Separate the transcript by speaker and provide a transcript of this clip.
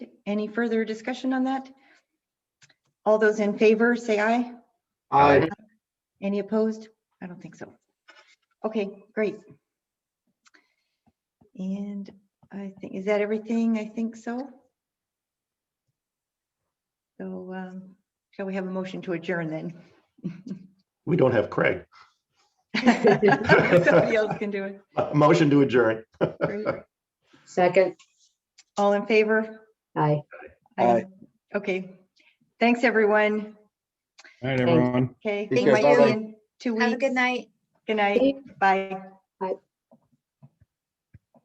Speaker 1: Any further discussion on that? All those in favor, say aye.
Speaker 2: Aye.
Speaker 1: Any opposed? I don't think so. Okay, great. And I think, is that everything? I think so. So um, shall we have a motion to adjourn then?
Speaker 2: We don't have Craig.
Speaker 1: Somebody else can do it.
Speaker 2: Motion to adjourn.
Speaker 1: Great.
Speaker 3: Second,
Speaker 1: All in favor?
Speaker 3: aye.
Speaker 1: Aye. Okay, thanks, everyone.
Speaker 4: All right,
Speaker 3: Thanks.
Speaker 4: everyone.
Speaker 1: Okay.
Speaker 5: Take
Speaker 1: thank
Speaker 5: care.
Speaker 1: you.
Speaker 5: Bye-bye.
Speaker 1: In Two
Speaker 6: Have a
Speaker 1: weeks.
Speaker 6: good night.
Speaker 1: Good night. Bye.